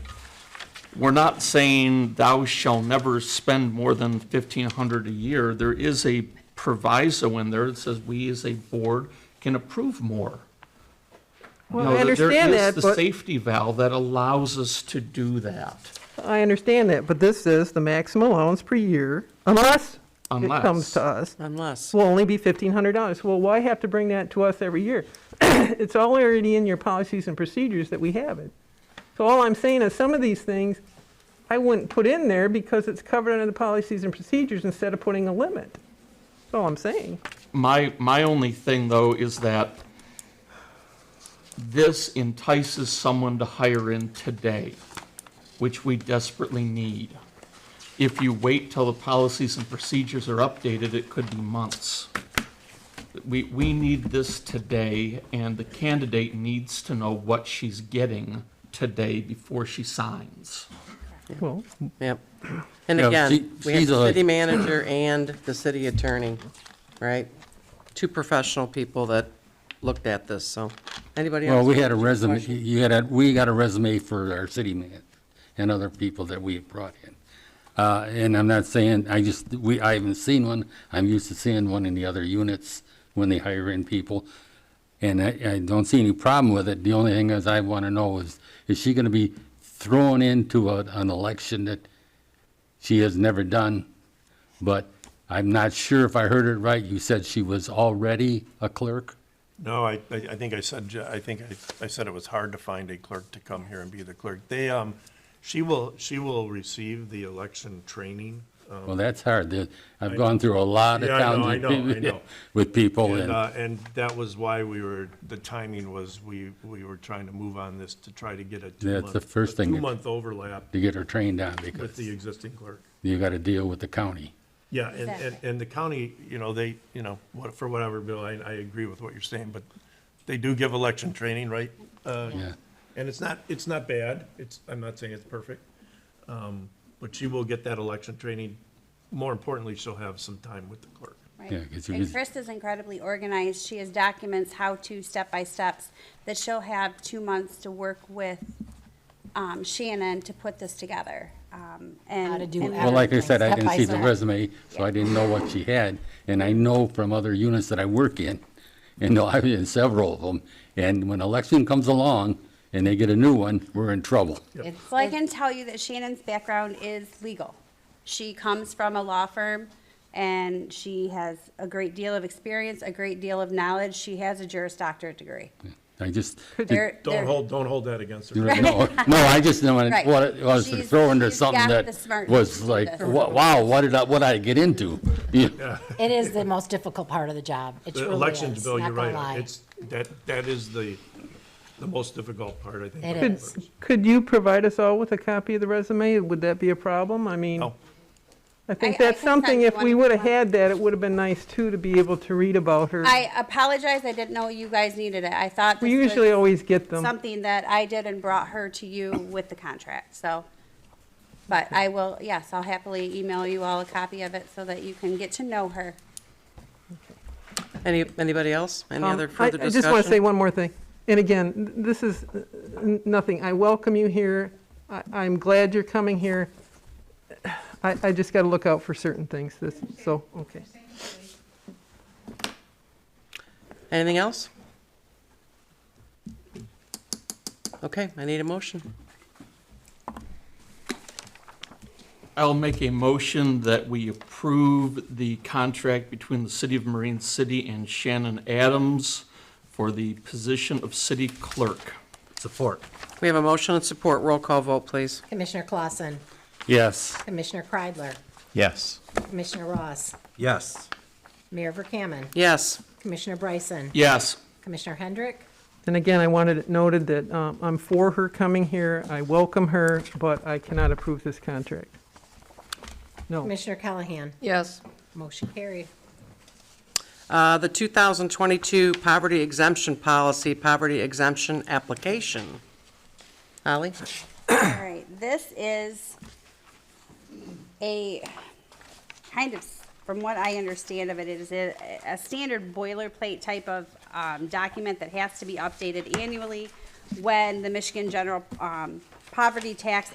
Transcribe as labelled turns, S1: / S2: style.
S1: we're not saying thou shall never spend more than fifteen hundred a year. There is a proviso in there that says we as a board can approve more. You
S2: Well,
S1: know,
S2: I
S1: there-
S2: understand that,
S1: There is the
S2: but-
S1: safety valve that allows us to do that.
S2: I understand that, but this is the maximum allowance per year, unless it
S1: Unless.
S2: comes to us,
S3: unless,
S2: will only be fifteen hundred dollars. Well, why have to bring that to us every year? It's all already in your policies and procedures that we have it. So all I'm saying is some of these things, I wouldn't put in there because it's covered under the policies and procedures instead of putting a limit. That's all I'm saying.
S1: My, my only thing, though, is that this entices someone to hire in today, which we desperately need. If you wait till the policies and procedures are updated, it could be months. We, we need this today, and the candidate needs to know what she's getting today before she signs.
S2: Well,
S3: yep. And
S4: Yeah,
S3: again,
S4: she-
S3: we have
S4: she's a-
S3: the city manager and the city attorney, right? Two professional people that looked at this, so, anybody else?
S4: Well, we
S3: have
S4: had a
S3: any
S4: resume,
S3: questions?
S4: you had a, we got a resume for our city man and other people that we have brought in. Uh, and I'm not saying, I just, we, I haven't seen one. I'm used to seeing one in the other units when they hire in people. And I, I don't see any problem with it. The only thing is I want to know is, is she going to be thrown into a, an election that she has never done? But I'm not sure if I heard it right. You said she was already a clerk?
S5: No, I, I I think I said, ju- I think I, I said it was hard to find a clerk to come here and be the clerk. They, um, she will, she will receive the election training. um,
S4: Well, that's hard. The- I've gone through a lot of
S5: Yeah, I know,
S4: towns.
S5: I
S4: with
S5: know, I
S4: people-
S5: know.
S4: With people
S5: And,
S4: and,
S5: uh, and that was why we were, the timing was, we, we were trying to move on this to try to get a two-month.
S4: That's the first
S5: a
S4: thing.
S5: Two-month overlap
S4: to get her trained on
S5: with
S4: because
S5: the existing clerk.
S4: you got to deal with the county.
S5: Yeah, and, and, and the county, you know, they, you know, what, for whatever, Bill, I, I agree with what you're saying, but they do give election training, right? Uh,
S4: Yeah.
S5: And it's not, it's not bad. It's, I'm not saying it's perfect. Um, but she will get that election training. More importantly, she'll have some time with the clerk.
S4: Yeah,
S6: Right.
S4: 'cause you
S6: And
S4: could-
S6: Chris is incredibly organized. She has documents, how-to, step-by-steps, that she'll have two months to work with um, Shannon to put this together. um, and-
S7: How to do
S6: and-
S7: it.
S4: Well, like I said, I
S7: Step
S4: didn't
S7: by
S4: see the
S7: step.
S4: resume, so I didn't know what she had. And I know from other units that I work in, and no, I've been in several of them. And when election comes along and they get a new one, we're in trouble.
S6: Well, I can tell you that Shannon's background is legal. She comes from a law firm, and she has a great deal of experience, a great deal of knowledge. She has a Juris Doctorate degree.
S4: I just,
S6: There- there-
S5: Don't hold, don't hold that against her.
S4: no, no, I just know what it-
S6: Right.
S4: what it was
S6: She's-
S4: thrown into
S6: she's got
S4: something
S6: the
S4: that
S6: smarts
S4: was
S6: to do
S4: like,
S6: this.
S4: wa- wow, what did I, what did I get into? Yeah.
S7: It is the most difficult part of the job. It
S5: The
S7: truly
S5: elections
S7: is,
S5: bill,
S7: not
S5: you're
S7: gonna
S5: right.
S7: lie.
S5: It's, that, that is the, the most difficult part, I think.
S7: It
S5: for the
S7: is.
S5: clerks.
S2: could you provide us all with a copy of the resume? Would that be a problem? I mean,
S5: No.
S2: I
S6: I- I
S2: think
S6: can
S2: that's
S6: send
S2: something,
S6: you
S2: if
S6: one
S2: we
S6: if you
S2: would have
S6: want.
S2: had that, it would have been nice too, to be able to read about her.
S6: I apologize, I didn't know you guys needed it. I thought
S2: We
S6: this was-
S2: usually always get them.
S6: something that I did and brought her to you with the contract, so. But I will, yes, I'll happily email you all a copy of it so that you can get to know her.
S3: Any, anybody else? Any
S2: Um,
S3: other
S2: I-
S3: further discussion?
S2: I just want to say one more thing. And again, th- this is uh, n- nothing. I welcome you here. I- I'm glad you're coming here. I I just got to look out for certain things, This so, okay.
S3: Anything else? Okay, I need a motion.
S1: I'll make a motion that we approve the contract between the City of Marine City and Shannon Adams for the position of city clerk.
S8: Support.
S3: We have a motion and support. Roll call vote, please.
S7: Commissioner Clausen,
S8: Yes.
S7: Commissioner Kreidler,
S8: Yes.
S7: Commissioner Ross,
S8: Yes.
S7: Mayor Verkaman,
S3: Yes,
S7: Commissioner Bryson,
S1: Yes,
S7: Commissioner Hendrick,
S2: And again, I wanted it noted that um, I'm for her coming here. I welcome her, but I cannot approve this contract. No.
S7: Commissioner Callahan. Yes. Motion carried.
S3: Uh, the 2022 poverty exemption policy, poverty exemption application. Holly?
S6: All right, this is a, kind of, from what I understand of it, it is a, a standard boilerplate type of, um, document that has to be updated annually when the Michigan General, um, Poverty Tax